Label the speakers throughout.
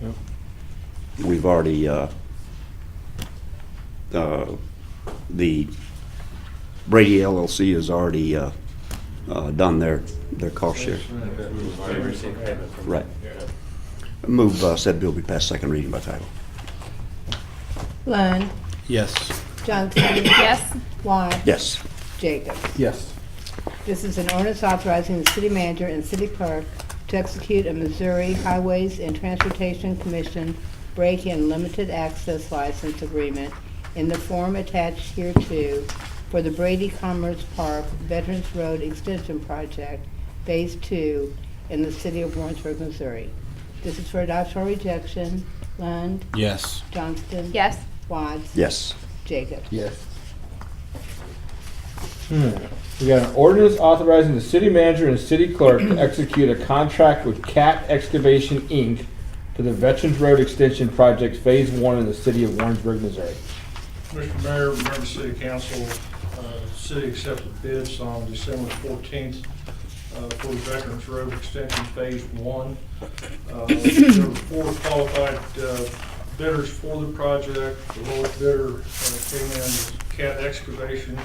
Speaker 1: Yep.
Speaker 2: We've already, uh, uh, the Brady LLC has already uh, uh, done their, their cost share. Right. Move uh, said bill be passed second reading by title.
Speaker 3: Lund,
Speaker 1: Yes.
Speaker 3: Johnson,
Speaker 4: Yes.
Speaker 3: Watts.
Speaker 2: Yes.
Speaker 3: Jacobs.
Speaker 1: Yes.
Speaker 3: This is an ordinance authorizing the city manager and city clerk to execute a Missouri Highways and Transportation Commission break-in limited access license agreement in the form attached hereto for the Brady Commerce Park Veterans Road Extension Project, Phase Two, in the city of Warrensburg, Missouri. This is for adoption or rejection. Lund,
Speaker 1: Yes.
Speaker 3: Johnston.
Speaker 4: Yes.
Speaker 3: Watts.
Speaker 2: Yes.
Speaker 3: Jacobs.
Speaker 1: Yes.
Speaker 5: We got an ordinance authorizing the city manager and city clerk to execute a contract with Cat Excavation, Inc. for the Veterans Road Extension Project Phase One in the city of Warrensburg, Missouri.
Speaker 6: Mr. Mayor, members of City Council, uh, City accepted bids on December 14th uh, for the Veterans Road Extension Phase 1. Uh, There were four qualified uh, bidders for the project. The lowest bidder uh, came in as Cat Excavation.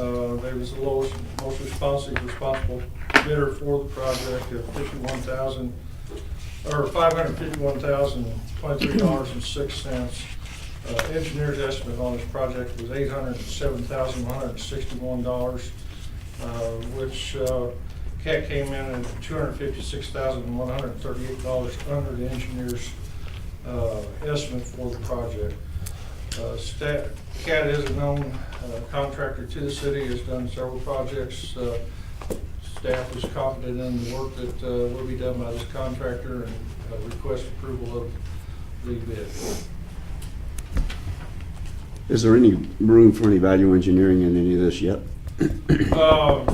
Speaker 6: Uh, They was the lowest, most responsive, responsible bidder for the project at 51000 or five hundred fifty-one thousand, twenty-three dollars and six cents. Uh, Engineer's estimate on this project was eight hundred and seven thousand, one hundred and sixty-one dollars, which uh, CAT came in at two hundred fifty-six thousand, one hundred and thirty-eight dollars under the engineer's uh, estimate for the project. Uh, Stat, CAT is a known uh, contractor to the city, has done several projects. uh, Staff is confident in the work that uh, will be done by this contractor and uh, request approval of the bid.
Speaker 2: Is there any room for any value engineering in any of this yet?
Speaker 6: Um,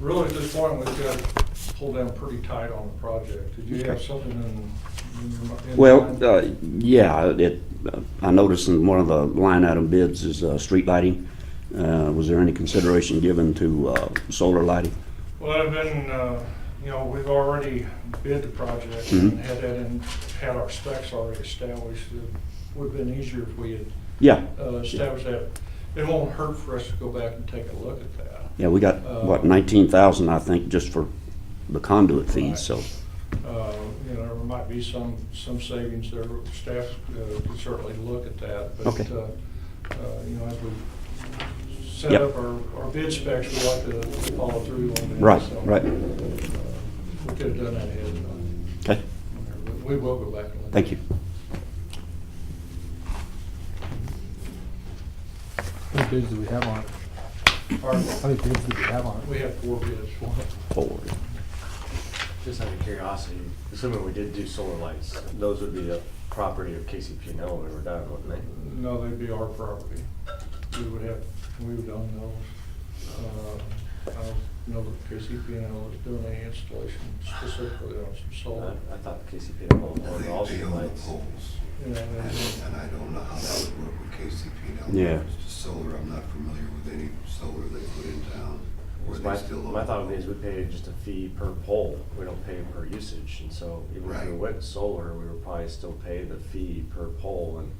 Speaker 6: Really, at this point, we've got to pull down pretty tight on the project. Did you have something in- in? your mi- in
Speaker 2: Well,
Speaker 6: mind?
Speaker 2: uh, yeah, it, uh, I noticed in one of the line item bids is uh, street lighting. Uh, Was there any consideration given to uh, solar lighting?
Speaker 6: Well, I've been, uh, you know, we've already bid the project and
Speaker 2: Mhm.
Speaker 6: had that in, had our specs already established. It Would've been easier if we had
Speaker 2: Yeah,
Speaker 6: uh, established that. It won't hurt for us to go back and take a look at that.
Speaker 2: yeah, we got, what, 19,000, I think, just for the conduit fees, so,
Speaker 6: Uh, You know, there might be some, some savings there. Staff uh, could certainly look at that. but,
Speaker 2: Okay.
Speaker 6: uh, uh, You know, as we set
Speaker 2: Yep.
Speaker 6: up our our bid specs, we like to follow through on that.
Speaker 2: right,
Speaker 6: so, uh,
Speaker 2: right.
Speaker 6: We could have done that ahead of time.
Speaker 2: Okay,
Speaker 6: But We will go back and look.
Speaker 2: thank you.
Speaker 1: How many bids do we have on it? How
Speaker 6: Pardon?
Speaker 1: many bids do we have on
Speaker 6: We have four bids.
Speaker 2: Forward.
Speaker 7: Just out of curiosity, assuming we did do solar lights, those would be the property of KCP&L when we were done, wouldn't they?
Speaker 6: No, they'd be our property. We would have, we would own those. Uh, I don't know that KCP&L is doing any installation specifically on some solar.
Speaker 7: I I thought KCP&L owned all the lights.
Speaker 6: you know,
Speaker 8: And I
Speaker 6: and-
Speaker 8: don't- and I don't know how that would work with KCP now.
Speaker 2: Yeah.
Speaker 8: It's Solar, I'm not familiar with any solar they put in town. or
Speaker 7: Because
Speaker 8: they
Speaker 7: My,
Speaker 8: still
Speaker 7: my
Speaker 8: own
Speaker 7: thought
Speaker 8: them.
Speaker 7: is we pay just a fee per pole, we don't pay per usage, and so even if we
Speaker 8: Right.
Speaker 7: went solar, we would probably still pay the fee per pole, and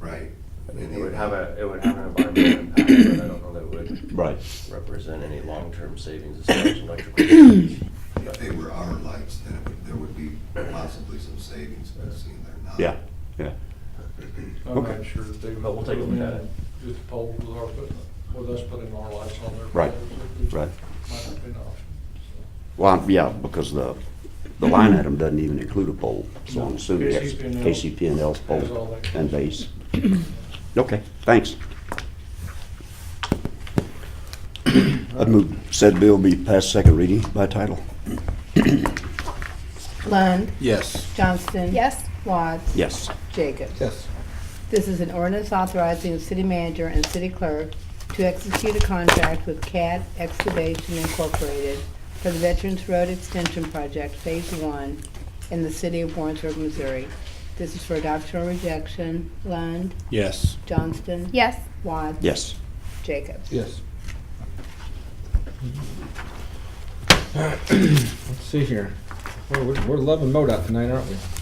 Speaker 8: Right.
Speaker 7: it would have a, it would have an environmental impact, but I don't know that it would
Speaker 2: Right.
Speaker 7: represent any long-term savings as far as electrical. usage.
Speaker 8: If they were our lights, then it would- there would be possibly some savings, but seeing they're not.
Speaker 2: Yeah, yeah.
Speaker 6: I'm
Speaker 2: Okay.
Speaker 6: not sure that they.
Speaker 7: But we'll take a look at it.
Speaker 6: Just poll with our, put- with us putting our lights on there.
Speaker 2: Right,
Speaker 6: It
Speaker 2: right.
Speaker 6: Might not be an option.
Speaker 2: Well, I'm- yeah, because the, the line item doesn't even include a pole, so I'm
Speaker 6: No,
Speaker 2: assuming that's
Speaker 6: KCP&L.
Speaker 2: KCP&L's
Speaker 6: Has all
Speaker 2: pole
Speaker 6: that.
Speaker 2: and base. Okay, thanks. I'd move said bill be passed second reading by title.
Speaker 3: Lund,
Speaker 1: Yes.
Speaker 3: Johnston.
Speaker 4: Yes.
Speaker 3: Watts.
Speaker 2: Yes.
Speaker 3: Jacobs.
Speaker 1: Yes.
Speaker 3: This is an ordinance authorizing the city manager and city clerk to execute a contract with CAT Excavation Incorporated for the Veterans Road Extension Project Phase One in the city of Warrensburg, Missouri. This is for adoption or rejection. Lund,
Speaker 1: Yes.
Speaker 3: Johnston.
Speaker 4: Yes.
Speaker 3: Watts.
Speaker 2: Yes.
Speaker 3: Jacobs.
Speaker 1: Yes.
Speaker 5: Let's see here. We're, we're- we're loving MoDOT tonight, aren't we?